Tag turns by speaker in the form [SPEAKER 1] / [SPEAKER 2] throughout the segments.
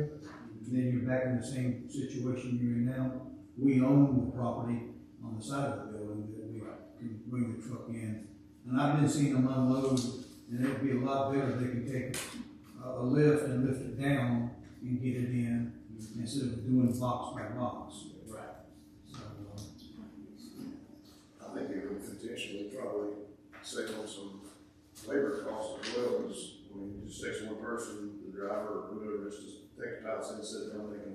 [SPEAKER 1] and then you're back in the same situation you're in now. We own the property on the side of the building that we can bring the truck in. And I've been seeing them unload, and it'd be a lot better if they could take a, a lift and lift it down and get it in instead of doing box by box.
[SPEAKER 2] Right.
[SPEAKER 1] So, uh,
[SPEAKER 3] I think it would potentially probably save on some labor costs as well, because when you just takes one person, the driver or whoever, it's just take the tiles and sit down, they can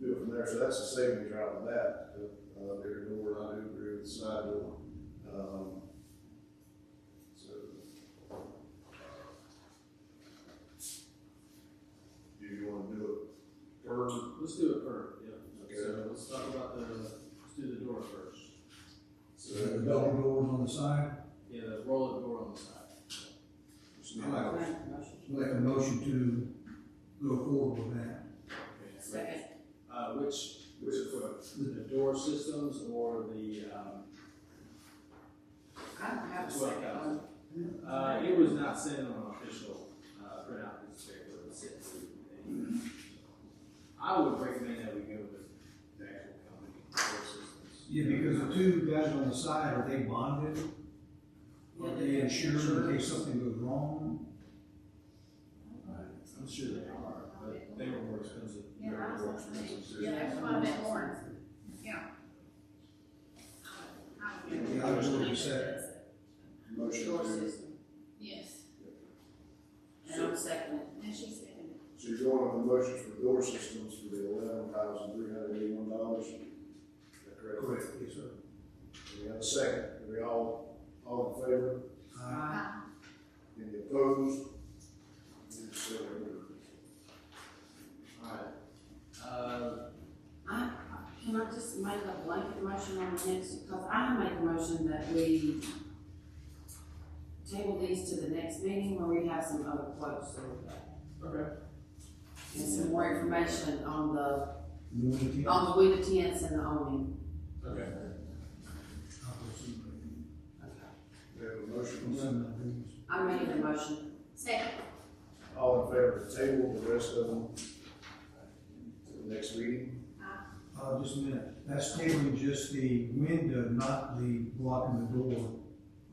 [SPEAKER 3] do it from there, so that's a savings out of that. But, Uh, their door, I do agree with the side door, um, so. Do you wanna do it per,
[SPEAKER 2] Let's do it first, yeah.
[SPEAKER 3] Okay.
[SPEAKER 2] So let's talk about the, let's do the door first.
[SPEAKER 3] so,
[SPEAKER 1] The double doors on the side,
[SPEAKER 2] Yeah, the roll of door on the side.
[SPEAKER 3] it's not-
[SPEAKER 1] like a motion to go forward with that.
[SPEAKER 2] Okay.
[SPEAKER 4] Second.
[SPEAKER 2] Uh, which, which approach, the door systems or the, um,
[SPEAKER 4] I don't have a
[SPEAKER 2] It's like
[SPEAKER 4] second
[SPEAKER 2] a-
[SPEAKER 4] one.
[SPEAKER 2] uh, it was not sent on an official, uh, printout, it's very well sent to. I would recommend that we go with the actual company, door systems.
[SPEAKER 1] Yeah, because the two guys on the side, are they bonded? Are they insured in case something goes wrong?
[SPEAKER 2] I'm sure they are, but they were more expensive.
[SPEAKER 4] Yeah, I was
[SPEAKER 2] They were more
[SPEAKER 4] gonna say,
[SPEAKER 2] expensive.
[SPEAKER 4] yeah, that's why I meant orange, yeah. I would- I would-
[SPEAKER 1] Yeah, I was gonna say.
[SPEAKER 3] Motion
[SPEAKER 4] Door
[SPEAKER 3] to-
[SPEAKER 4] system, yes. And I'm second. And she seconded.
[SPEAKER 3] So you're going on the motions for door systems for the eleven thousand three hundred eighty-one dollars? Correct.
[SPEAKER 1] Correct, yes, sir.
[SPEAKER 3] We have a second, are we all, all in favor,
[SPEAKER 1] Aye.
[SPEAKER 4] Ah,
[SPEAKER 3] any opposed? It's so ordered.
[SPEAKER 2] Alright, uh,
[SPEAKER 5] I, can I just make a blanket motion on the next, because I make a motion that we table these to the next meeting where we have some other quotes or-
[SPEAKER 2] okay,
[SPEAKER 5] and some more information on the,
[SPEAKER 1] You want to keep-
[SPEAKER 5] on the winter tents and the awning.
[SPEAKER 2] okay.
[SPEAKER 1] I'll go see what I can
[SPEAKER 3] We have a
[SPEAKER 1] do.
[SPEAKER 3] motion,
[SPEAKER 1] Some of my things.
[SPEAKER 5] I made a motion.
[SPEAKER 4] second,
[SPEAKER 3] all in favor of the table, the rest of them to the next meeting?
[SPEAKER 1] Uh, just a minute, that's tabling just the window, not the blocking the door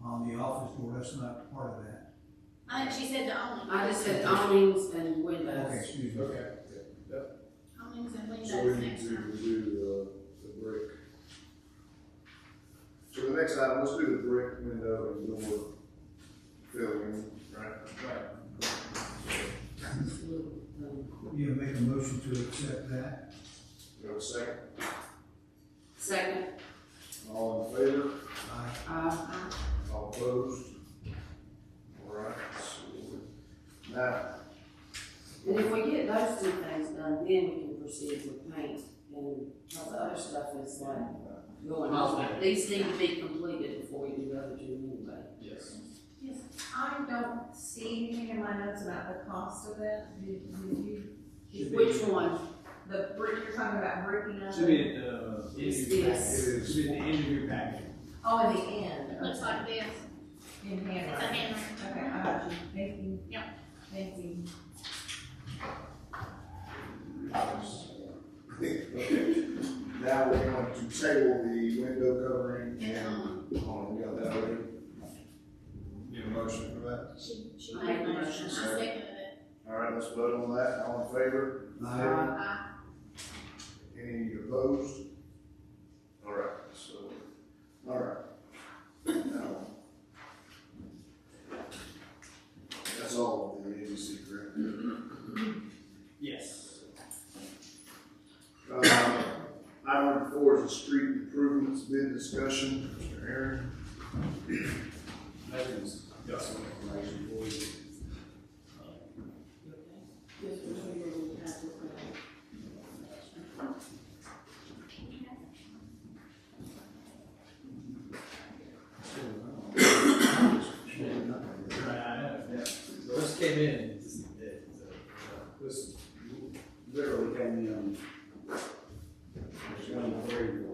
[SPEAKER 1] on the office door, that's not part of that.
[SPEAKER 4] I think she said the only.
[SPEAKER 5] I just said awnings and
[SPEAKER 1] Okay,
[SPEAKER 5] windows.
[SPEAKER 1] excuse me.
[SPEAKER 2] Okay.
[SPEAKER 4] Onlys and
[SPEAKER 3] So we
[SPEAKER 4] windows
[SPEAKER 3] need
[SPEAKER 4] next
[SPEAKER 3] to
[SPEAKER 4] time.
[SPEAKER 3] do the, the brick. So the next item, let's do the brick window and door filling, right?
[SPEAKER 2] Right,
[SPEAKER 1] Yeah, make a motion to accept that.
[SPEAKER 3] We have a second,
[SPEAKER 5] Second,
[SPEAKER 3] all in favor?
[SPEAKER 1] Aye.
[SPEAKER 5] uh,
[SPEAKER 3] All opposed? All right, so now,
[SPEAKER 5] and if we get those two things done, then we can proceed with paint and all the other stuff is like going on. These need to be completed before we do the other two anyway.
[SPEAKER 2] yes.
[SPEAKER 6] I don't see anything in my notes about the cost of that. Did, did you,
[SPEAKER 2] Should be-
[SPEAKER 5] Which one?
[SPEAKER 6] the brick, you're talking about bricking up?
[SPEAKER 2] Should be at the. uh, end of your
[SPEAKER 5] It's
[SPEAKER 3] it
[SPEAKER 5] this.
[SPEAKER 2] packet.
[SPEAKER 3] is,
[SPEAKER 2] Should be at the end of your packet.
[SPEAKER 6] Oh, in the end.
[SPEAKER 4] It Looks like this,
[SPEAKER 6] In
[SPEAKER 4] it's a
[SPEAKER 6] hand.
[SPEAKER 4] handwriting.
[SPEAKER 6] Okay, I got you. Thank you.
[SPEAKER 4] Yep.
[SPEAKER 6] Thank you.
[SPEAKER 3] now we're going to table the window covering and,
[SPEAKER 4] And,
[SPEAKER 3] oh, we got that ready? Need a motion for that?
[SPEAKER 4] um, she, she
[SPEAKER 5] I
[SPEAKER 4] made a
[SPEAKER 5] made a
[SPEAKER 4] motion, I
[SPEAKER 3] motion.
[SPEAKER 4] seconded it.
[SPEAKER 3] All right, let's vote on that, all in favor?
[SPEAKER 1] Aye.
[SPEAKER 4] Aye.
[SPEAKER 3] Any opposed? All right, so, all right. Now, That's all of the ABC, correct?
[SPEAKER 2] Yes.
[SPEAKER 3] Uh, Item four is the street improvements bid discussion. Mr. Aaron? Nathan's got some information for you.
[SPEAKER 2] Right, I know, yeah. Those came in, it's just dead, so. uh,
[SPEAKER 7] This literally came in, it's one of the three,